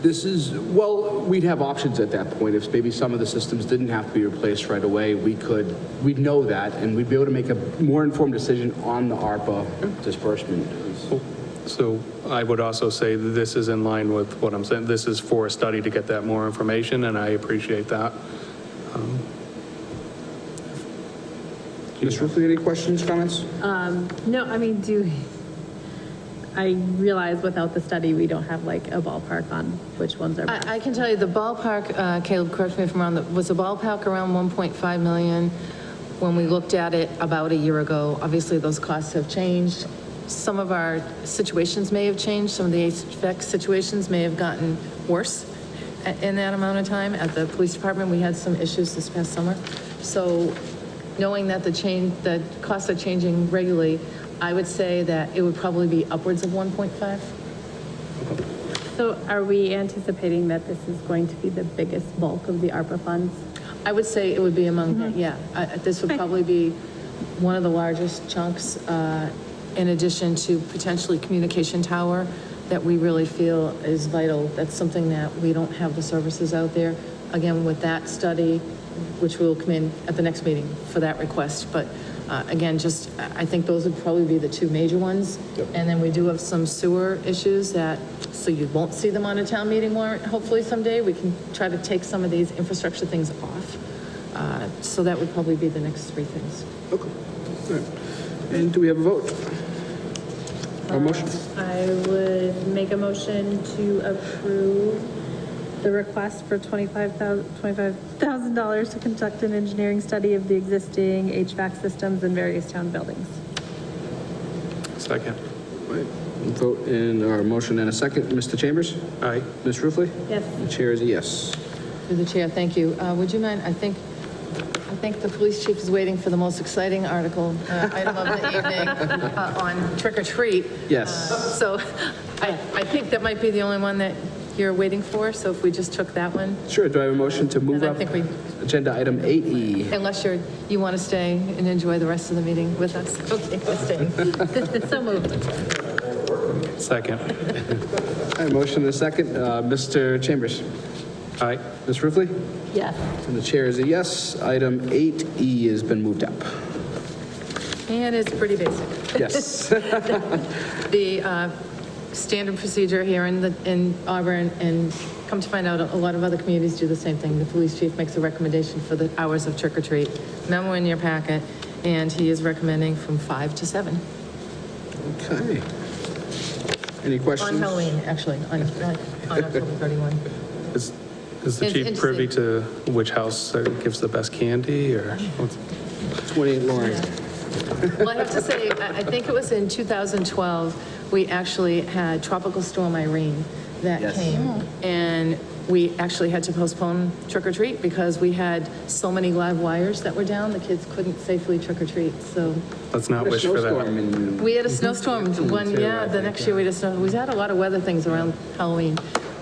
This is, well, we'd have options at that point. If maybe some of the systems didn't have to be replaced right away, we could, we'd know that, and we'd be able to make a more informed decision on the ARPA disbursement. So I would also say that this is in line with what I'm saying. This is for a study to get that more information, and I appreciate that. Ms. Ruffey, any questions, comments? No, I mean, do, I realize without the study, we don't have like a ballpark on which ones are. I, I can tell you the ballpark, uh, Caleb, correct me if I'm wrong, that- was the ballpark around 1.5 million when we looked at it about a year ago. Obviously, those costs have changed. Some of our situations may have changed. Some of the HVAC situations may have gotten worse a- in that amount of time. At the police department, we had some issues this past summer. So knowing that the change, the costs are changing regularly, I would say that it would probably be upwards of 1.5. So are we anticipating that this is going to be the biggest bulk of the ARPA funds? I would say it would be among, yeah, I- I- this would probably be one of the largest chunks, uh, in addition to potentially communication tower, that we really feel is vital. That's something that we don't have the services out there. Again, with that study, which will come in at the next meeting for that request, but uh, again, just, I I think those would probably be the two major ones. And then we do have some sewer issues that, so you won't see them on a town meeting warrant, hopefully someday. We can try to take some of these infrastructure things off. Uh, So that would probably be the next three things. Okay. And do we have a vote? A motion? I would make a motion to approve the request for $25,000 $25,000 to conduct an engineering study of the existing HVAC systems in various town buildings. Second. Right. Vote in, or a motion and a second. Mr. Chambers? Aye. Ms. Ruffey? Yes. The chair is a yes. Through the chair, thank you. Uh, Would you mind, I think, I think the police chief is waiting for the most exciting article, uh, item of the evening, uh, on trick or treat. Uh, Yes. So I, I think that might be the only one that you're waiting for, so if we just took that one, Sure, do I have a motion to move And I up? think we- Agenda item E? 8E. unless you're, you want to stay and enjoy the rest of the meeting with us. Okay, we're staying. So moved. Second. All right, motion and a second. Uh, Mr. Chambers? Aye. Ms. Ruffey? Yes. And the chair is a yes. Item 8E has been moved up. And it's pretty basic. Yes. the uh, standard procedure here in the, in Auburn, and come to find out, a lot of other communities do the same thing. The police chief makes a recommendation for the hours of trick or treat, memo in your packet, and he is recommending from five to seven Okay. Any on questions? Halloween, actually, on, on on October 31. Is, is the It's chief privy to which house uh, gives the best candy, or? 28 Lauren. Well, I have to say, I I think it was in 2012, we actually had Tropical Storm Irene that came. And we actually had to postpone trick or treat because we had so many live wires that were down, the kids couldn't safely trick or treat. So Let's not wish for Snowstorm that. in- we had a snowstorm one, yeah, the next year we had a snow, we had a lot of weather things around Halloween.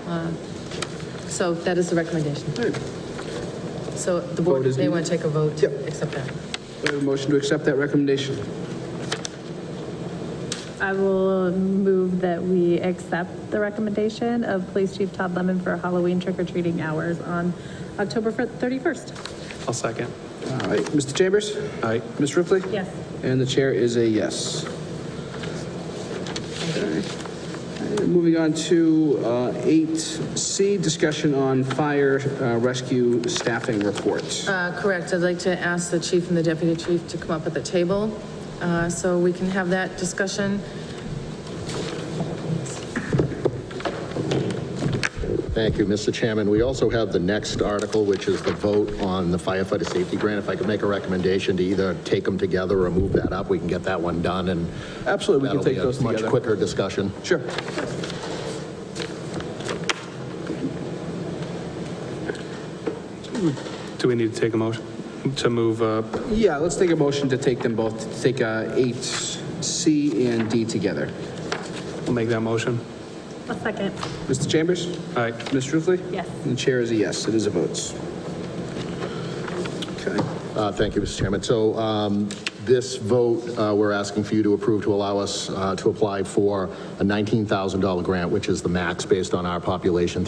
Uh, So that is the recommendation. So the board Vote is may want to take a vote to accept that. Do I have a motion to accept that recommendation? I will move that we accept the recommendation of Police Chief Todd Lemon for Halloween trick-or-treating hours on October fir- 31st. I'll second. All right, Uh, Mr. Chambers? Aye. Ms. Ruffey? Yes. And the chair is a yes. Okay. Uh, Moving on to uh, 8C, discussion on fire uh, rescue staffing report. Uh, Correct. I'd like to ask the chief and the deputy chief to come up at the table uh, so we can have that discussion. Thank you, Mr. Chairman. We also have the next article, which is the vote on the firefighter safety grant. If I could make a recommendation to either take them together or move that up, we can get that one done, and Absolutely, we can that'll be take a those much together. quicker discussion. Sure. Do we need to take a motion to move up? Yeah, let's take a motion to take them both, to take uh, 8C and D together. I'll make that motion. A second. Mr. Chambers? Aye. Ms. Ruffey? Yes. And the chair is a yes, it is a vote. Okay. Uh, Thank you, Mr. Chairman. So um, This vote, uh, we're asking for you to approve to allow us uh, to apply for a $19,000 grant, which is the max based on our population